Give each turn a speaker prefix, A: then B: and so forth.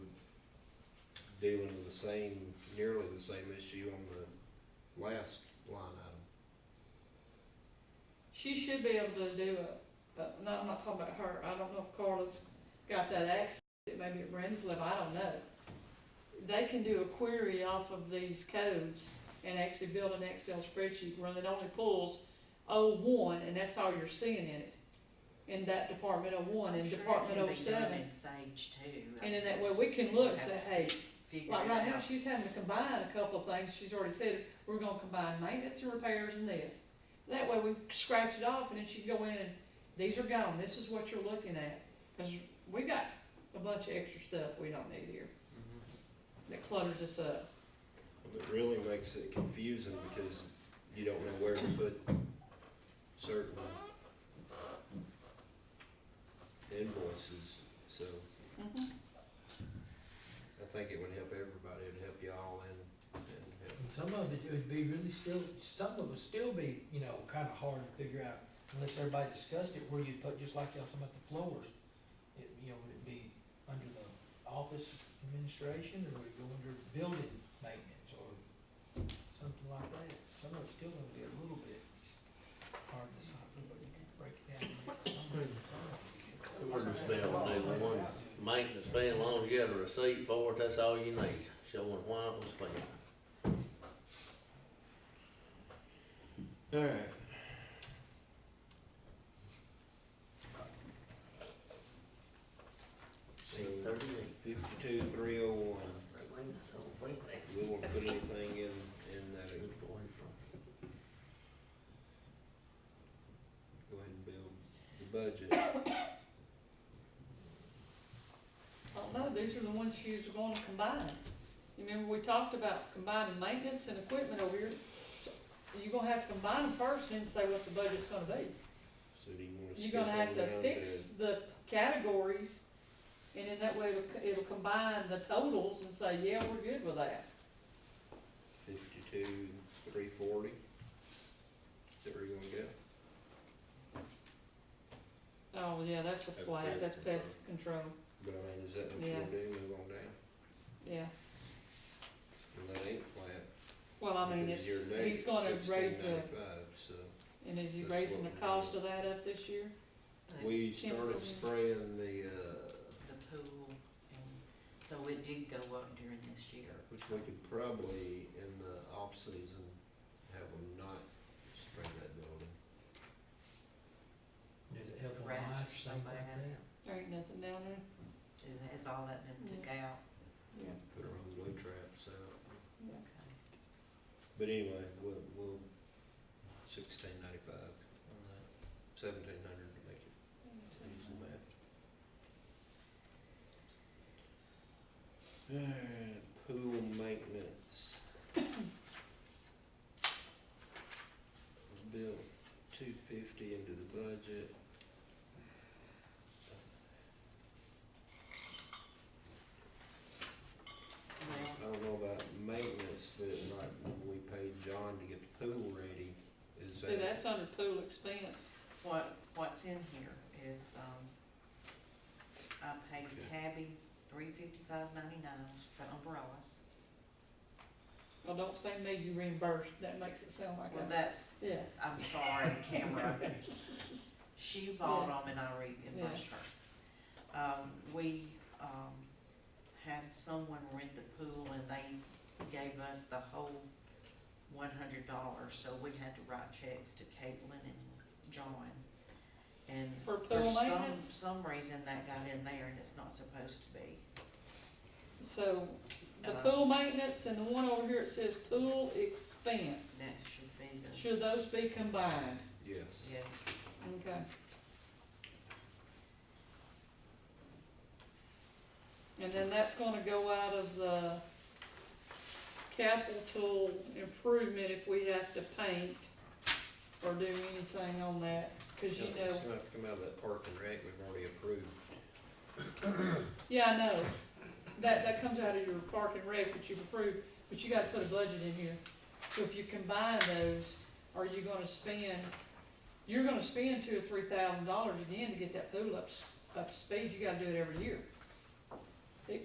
A: dealing with the same, nearly the same issue on the last line item.
B: She should be able to do it, but no, I'm not talking about her. I don't know if Carla's got that access, maybe at Renslip, I don't know. They can do a query off of these codes and actually build an Excel spreadsheet, where it only pulls O one, and that's all you're seeing in it. In that Department O one
C: I'm
B: and
C: sure it
B: Department
C: can
B: O
C: be done
B: seven.
C: in Sage too. I
B: And in
C: mean,
B: that way,
C: just
B: we can look,
C: have
B: say,
C: to
B: hey,
C: figure
B: Like
C: it
B: right now,
C: out.
B: she's having to combine a couple of things, she's already said, we're gonna combine maintenance and repairs and this. That way we scratch it off and then she can go in and, these are gone, this is what you're looking at. Cause we got a bunch of extra stuff we don't need here that clutters us up.
A: It really makes it confusing because you don't know where to put certain invoices, so I think it would help everybody, it'd help y'all and, and help
D: And some of it would be really still, some of it would still be, you know, kinda hard to figure out unless everybody discussed it, where you put, just like y'all talking about the floors. It, you know, would it be under the office administration or would it go under building maintenance or something like that? Some of it's still gonna be a little bit hard to decipher, but you can break it down.
E: We're just be able to do the one maintenance fee, as long as you got a receipt for it, that's all you need, showing why it was spent.
F: Alright.
A: So, Fifty-two, three oh one, we won't put anything in, in that, go ahead and build the budget.
B: I don't know, Oh, these are the ones she was gonna combine. You Remember, we talked about combining maintenance and equipment over here. So You're gonna have to combine them first and then say what the budget's gonna be.
A: So do you wanna skip
B: You're gonna have
A: on
B: to
A: down
B: fix the categories, and in that way, it'll, it'll combine the totals and say, yeah, we're good with that.
A: Fifty-two, three forty. Is that where you're gonna go?
B: Oh, yeah, that's a
A: That's pest
B: flat, that's pest control,
A: But I mean, is that what
B: Yeah.
A: you're gonna do, move on down?
B: yeah.
A: And that ain't flat.
B: Well, I mean,
A: because
B: it's,
A: your net
B: he's gonna raise
A: 16.95,
B: the,
A: so.
B: and is he
A: That's
B: raising the
A: what we're
B: cost of
A: doing.
B: that up this year?
A: We
B: Can't
A: started
B: remember.
A: spraying the, uh,
C: The pool, and so it did go up during this year.
A: which we could probably in the off-season have them not spray that building.
D: Does it help on
C: Rats or
D: lights or something like
C: something.
D: that?
B: There ain't nothing down
C: Is- Has all that been took
B: Mm.
C: out?
B: there, yeah,
A: put our own glue traps out.
B: yeah.
C: Okay.
A: But anyway, we'll, we'll sixteen ninety-five on that, seventeen hundred to make it easy math. Alright, pool maintenance. Built two fifty into the budget.
C: Well,
A: I don't know about maintenance, but like when we paid John to get the pool ready, is that?
B: See, that's under pool expense,
C: What, what's in here is, um, I paid Tabby three fifty-five ninety-nine for umbrellas.
B: well, don't say me you reimbursed, that makes it sound like
C: Well,
B: that,
C: that's,
B: yeah.
C: I'm sorry, camera. She bought them and I reimbursed her. Um, we, um, had someone rent the pool and they gave us the whole one hundred dollars, so we had to write checks to Caitlin and John. And
B: For
C: for
B: pool
C: some,
B: maintenance,
C: some reason that got in there and it's not supposed to be.
B: so the
C: Uh,
B: pool maintenance and the one over here, it says pool expense.
C: That should be the,
B: Should those be combined?
A: Yes.
C: yes,
B: Okay. And then that's gonna go out of the capital improvement if we have to paint or do anything on that, cause you know,
A: It's gonna have to come out of that park and rec we've already approved.
B: yeah, I know. That, that comes out of your park and rec that you've approved, but you gotta put a budget in here. So if you combine those, are you gonna spend, you're gonna spend two or three thousand dollars again to get that pool up, s- up to speed, you gotta do it every year.